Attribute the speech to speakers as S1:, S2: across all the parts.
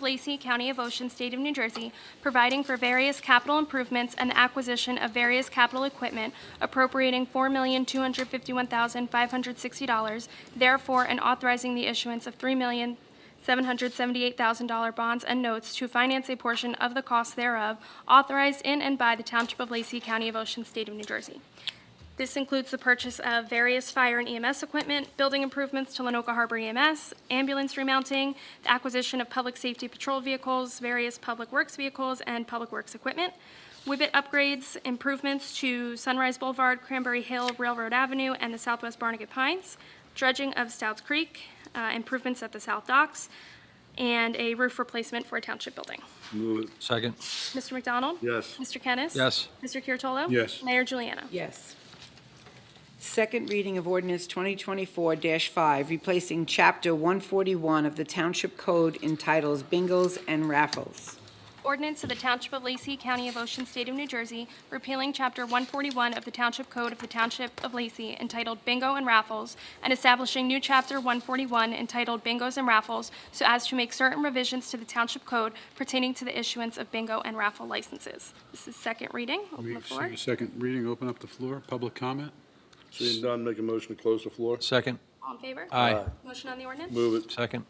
S1: Lacey, County of Ocean, State of New Jersey, providing for various capital improvements and the acquisition of various capital equipment, appropriating $4,251,560, therefore, and authorizing the issuance of $3,778,000 bonds and notes to finance a portion of the cost thereof, authorized in and by the Township of Lacey, County of Ocean, State of New Jersey. This includes the purchase of various fire and EMS equipment, building improvements to Lenoka Harbor EMS, ambulance remounting, the acquisition of public safety patrol vehicles, various public works vehicles, and public works equipment, Whibbit upgrades, improvements to Sunrise Boulevard, Cranberry Hill, Railroad Avenue, and the Southwest Barnegat Pines, dredging of Stouts Creek, uh, improvements at the South Docks, and a roof replacement for a township building.
S2: Move it.
S3: Second.
S1: Mr. McDonald?
S2: Yes.
S1: Mr. Kennis?
S3: Yes.
S1: Mr. Curatolo?
S2: Yes.
S1: Mayor Juliana?
S4: Yes. Second reading of ordinance 2024-5, replacing Chapter 141 of the Township Code entitles Bingos and Raffles.
S1: Ordinance of the Township of Lacey, County of Ocean, State of New Jersey, repealing Chapter 141 of the Township Code of the Township of Lacey entitled Bingo and Raffles, and establishing new Chapter 141 entitled Bingos and Raffles so as to make certain revisions to the Township Code pertaining to the issuance of bingo and raffle licenses. This is second reading. Open the floor.
S5: Second reading, open up the floor, public comment?
S2: Seeing none, make a motion to close the floor.
S3: Second.
S1: All in favor?
S3: Aye.
S1: Motion on the ordinance?
S2: Move it.
S3: Second.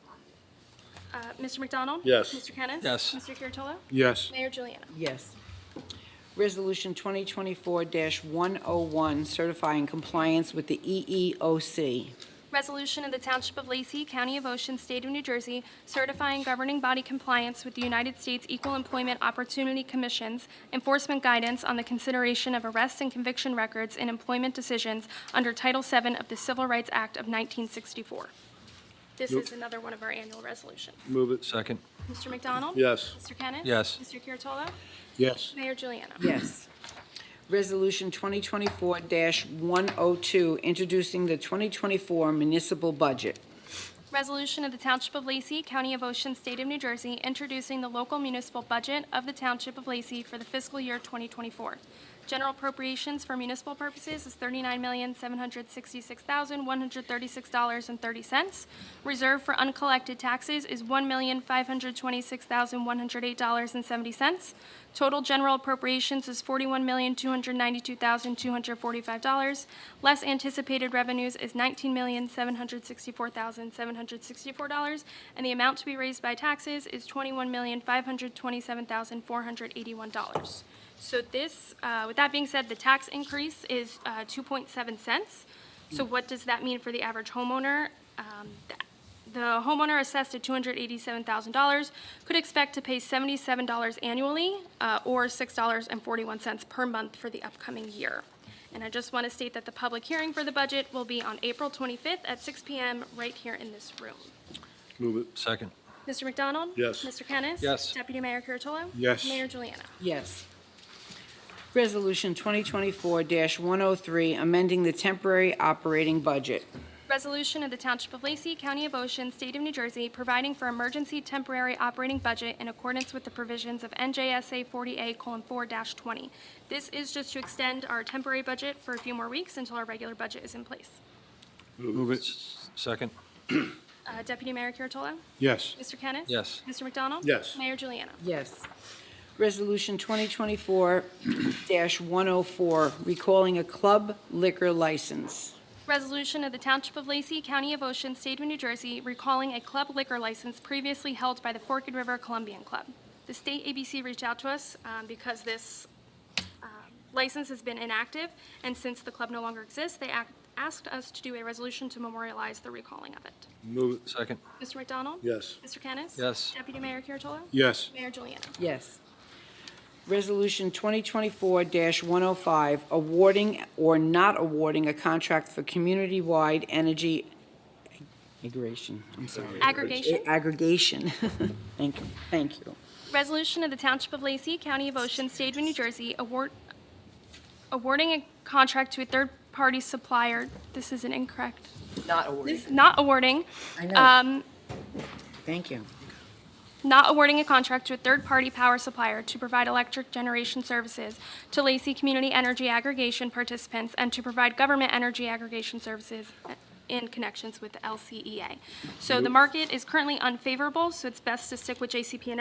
S1: Uh, Mr. McDonald?
S2: Yes.
S1: Mr. Kennis?
S3: Yes.
S1: Mr. Curatolo?
S5: Yes.
S1: Mayor Juliana?
S4: Yes. Resolution 2024-101, certifying compliance with the E EEOC.
S1: Resolution of the Township of Lacey, County of Ocean, State of New Jersey, certifying governing body compliance with the United States Equal Employment Opportunity Commission's enforcement guidance on the consideration of arrest and conviction records in employment decisions under Title VII of the Civil Rights Act of 1964. This is another one of our annual resolutions.
S2: Move it.
S3: Second.
S1: Mr. McDonald?
S2: Yes.
S1: Mr. Kennis?
S3: Yes.
S1: Mr. Curatolo?
S5: Yes.
S1: Mayor Juliana?
S4: Yes. Resolution 2024-102, introducing the 2024 municipal budget.
S1: Resolution of the Township of Lacey, County of Ocean, State of New Jersey, introducing the local municipal budget of the Township of Lacey for the fiscal year 2024. General appropriations for municipal purposes is $39,766,136.30. Reserve for uncollected taxes is $1,526,108.70. Total general appropriations is $41,292,245. Less anticipated revenues is $19,764,764, and the amount to be raised by taxes is $21,527,481. So this, uh, with that being said, the tax increase is uh, 2.7 cents. So what does that mean for the average homeowner? Um, th- the homeowner assessed at $287,000 could expect to pay $77 annually uh, or $6.41 per month for the upcoming year. And I just want to state that the public hearing for the budget will be on April 25th at 6 PM right here in this room.
S2: Move it.
S3: Second.
S1: Mr. McDonald?
S2: Yes.
S1: Mr. Kennis?
S3: Yes.
S1: Deputy Mayor Kuratolo?
S5: Yes.
S1: Mayor Juliana?
S4: Yes. Resolution 2024-103, amending the temporary operating budget.
S1: Resolution of the Township of Lacey, County of Ocean, State of New Jersey, providing for emergency temporary operating budget in accordance with the provisions of NJSA 40A:4-20. This is just to extend our temporary budget for a few more weeks until our regular budget is in place.
S5: Move it.
S3: Second.
S1: Uh, Deputy Mayor Kuratolo?
S5: Yes.
S1: Mr. Kennis?
S3: Yes.
S1: Mr. McDonald?
S2: Yes.
S1: Mayor Juliana?
S4: Yes. Resolution 2024-104, recalling a club liquor license.
S1: Resolution of the Township of Lacey, County of Ocean, State of New Jersey, recalling a club liquor license previously held by the Forked River Columbian Club. The state ABC reached out to us um, because this um, license has been inactive, and since the club no longer exists, they ac- asked us to do a resolution to memorialize the recalling of it.
S2: Move it.
S3: Second.
S1: Mr. McDonald?
S2: Yes.
S1: Mr. Kennis?
S3: Yes.
S1: Deputy Mayor Kuratolo?
S5: Yes.
S1: Mayor Juliana?
S4: Yes. Resolution 2024-105, awarding or not awarding a contract for community-wide energy aggregation. I'm sorry.
S1: Aggregation?
S4: Aggregation. Thank you, thank you.
S1: Resolution of the Township of Lacey, County of Ocean, State of New Jersey, award, awarding a contract to a third-party supplier. This is an incorrect,
S4: Not awarding.
S1: this- not awarding.
S4: I know.
S1: um,
S4: Thank you.
S1: Not awarding a contract to a third-party power supplier to provide electric generation services to Lacey Community Energy Aggregation participants and to provide government energy aggregation services in E connections with the LCEA. So the market is currently unfavorable, so it's best to stick with JCP and